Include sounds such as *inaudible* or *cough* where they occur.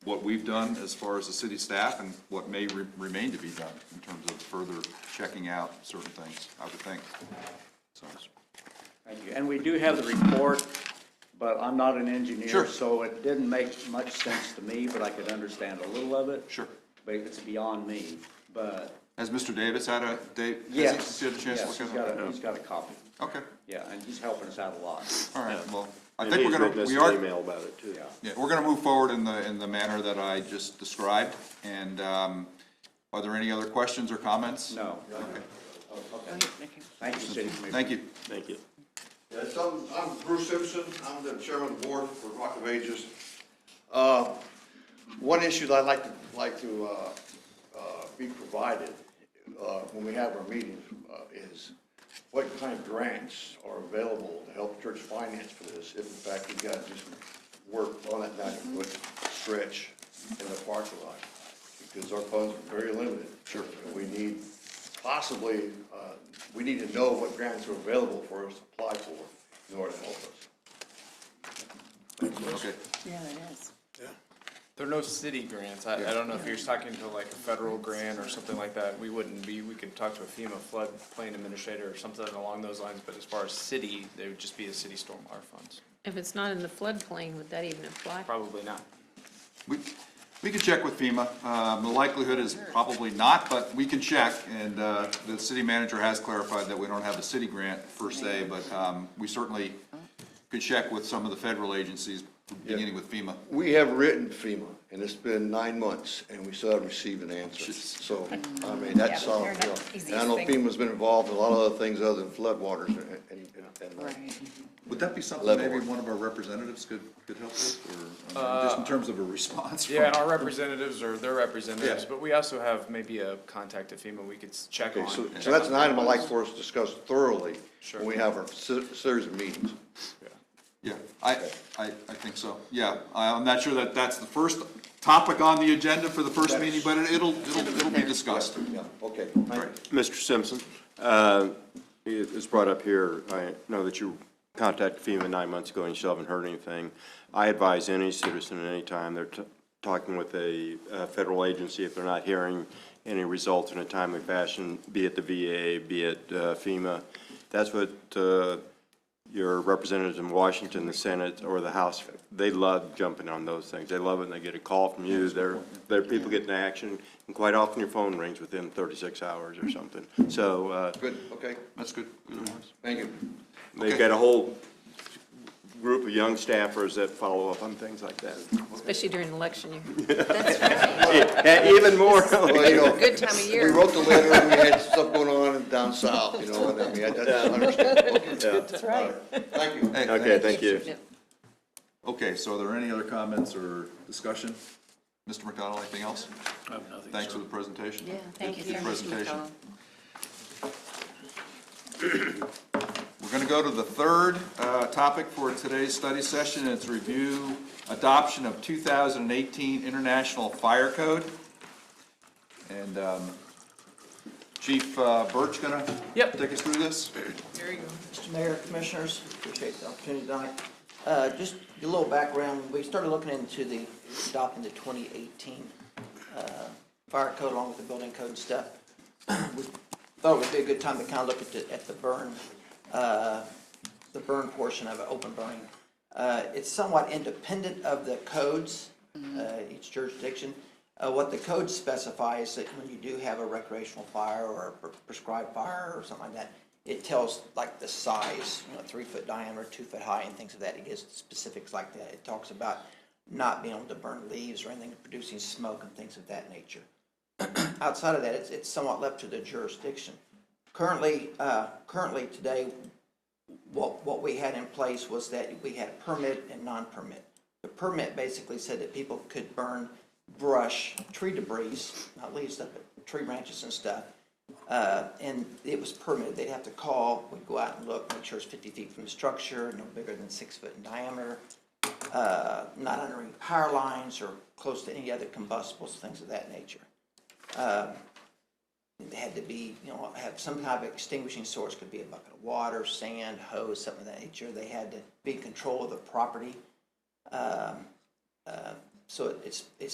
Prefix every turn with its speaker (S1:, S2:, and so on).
S1: what we've done as far as the city staff and what may re- remain to be done in terms of further checking out certain things, I would think. So,
S2: Thank you. And we do have the report, but I'm not an
S1: Sure.
S2: engineer, so it didn't make much sense to me, but I could understand a little of it.
S1: Sure.
S2: But it's beyond me, but
S1: Has Mr. Davis had a, Dave, has
S2: yes.
S1: he had a chance to
S2: Yes,
S1: look
S2: he's
S1: at
S2: got
S1: it?
S2: a, he's got a copy.
S1: Okay,
S2: Yeah, and he's helping us out a lot,
S1: all right, well, I
S3: And
S1: think
S3: he's
S1: we're
S3: written
S1: gonna,
S3: us
S1: we
S3: an
S1: are,
S3: Email about it too.
S2: yeah.
S1: Yeah, we're gonna move forward in the, in the manner that I just described, and, um, are there any other questions or comments?
S2: No,
S1: Okay,
S2: thank you, city commissioner.
S1: thank you.
S3: Thank you.
S4: Yes, I'm, I'm Bruce Simpson, I'm the chairman of the board for Rock of Ages. Uh, One issue that I'd like to, like to uh, uh, be provided uh, when we have our meetings uh, is what kind of grants are available to help church finance for this, if in fact we got to do some work on that ninety-foot stretch in the parking lot, because our funds are very limited. Sure. We need possibly, uh, we need to know what grants are available for us to apply for in order to help us.
S1: Okay,
S5: Yeah, it is.
S6: There are no city grants. I, I don't know if you're talking to like a federal grant or something like that. We wouldn't be, we can talk to a FEMA floodplain administrator or something along those lines, but as far as city, they would just be a city stormwater funds.
S5: If it's not in the floodplain, would that even apply?
S6: Probably not.
S1: we, we can check with FEMA, um, the likelihood is probably not, but we can check, and, uh, the city manager has clarified that we don't have a city grant per se, but, um, we certainly could check with some of the federal agencies, beginning with FEMA.
S4: We have written FEMA, and it's been nine months, and we still haven't received an answer.
S1: Jeez.
S4: So, I mean, that's,
S5: Yeah,
S4: all.
S5: they're
S4: you know,
S5: not easy
S4: and I know
S5: thing.
S4: FEMA's been involved in a lot of other things other than floodwaters and, and, and. uh,
S1: Would that be something
S4: Level.
S1: maybe one of our representatives could, could help with, or, I mean, just in terms of a response? from-
S6: Yeah, and our representatives or their representatives,
S1: Yeah.
S6: but we also have maybe a contact at FEMA we could s- check
S4: Okay,
S6: on.
S4: so,
S6: check
S4: so that's
S6: on
S4: an item I'd
S6: those.
S4: like for us to discuss thoroughly
S6: Sure.
S4: when we have our se- series of meetings.
S6: Yeah.
S1: Yeah, I, I, I think so, yeah. I- I'm not sure that that's the first topic on the agenda for the first meeting, but it- it'll, it'll, it'll be discussed.
S4: Yeah, okay.
S1: Right.
S3: Mr. Simpson, uh, it was brought up here, I know that you contacted FEMA nine months ago and you still haven't heard anything. I advise any citizen at any time they're t- talking with a uh, federal agency, if they're not hearing any results in a timely fashion, be it the VA, be it uh, FEMA, that's what uh, your representatives in Washington, the Senate, or the House, they love jumping on those things. They love it, and they get a call from you, they're, they're people getting action, and quite often your phone rings within thirty-six hours or something. So, uh,
S4: Good, okay,
S1: That's good. Good advice.
S4: thank you.
S3: they've got a whole group of young staffers that follow up on things like that.
S5: Especially during election year.
S3: *laughs* And even more,
S4: Well, you know,
S5: Good time of
S4: We
S5: year.
S4: wrote the letter, and we had stuff going on down south, you know, and I mean, that's understandable. That's right. Thank you.
S1: Hey,
S3: okay, thank you.
S5: Yep.
S1: Okay, so are there any other comments or discussion? Mr. McDonald, anything else? I have nothing. Thanks for the presentation.
S5: Yeah, thank you
S1: Good
S5: so much,
S1: Presentation.
S5: McCollum.
S1: We're going to go to the third uh, topic for today's study session. It's review adoption of 2018 International Fire Code. And um, Chief uh, Birch going to?
S7: Yep.
S1: Take us through this?
S7: Mr. Mayor, Commissioners, appreciate the opportunity tonight. Uh, Just a little background, we started looking into the, adopting the 2018 uh, fire code along with the building code and stuff. *clears throat* We Thought it would be a good time to kind of look at the, at the burn, uh, the burn portion of it, open burning. Uh, It's somewhat independent of the codes, uh, each jurisdiction. Uh, What the code specifies that when you do have a recreational fire or a pre- prescribed fire or something like that, it tells like the size, you know, three foot diameter, two foot high and things of that. It gives specifics like that. It talks about not being able to burn leaves or anything, producing smoke and things of that nature *clears throat* outside of that, it's, it's somewhat left to the jurisdiction. Currently, uh, currently today, what, what we had in place was that we had permit and non-permit. The permit basically said that people could burn brush, tree debris, not leaves, stuff, but tree branches and stuff. Uh, and it was permitted, they'd have to call, we'd go out and look, make sure it's fifty feet from the structure, no bigger than six foot in diameter uh, not under any power lines or close to any other combustibles, things of that nature. Um, It had to be, you know, have some type of extinguishing source, could be a bucket of water, sand, hose, something of that nature. They had to be in control of the property. Um, uh, So it's, it's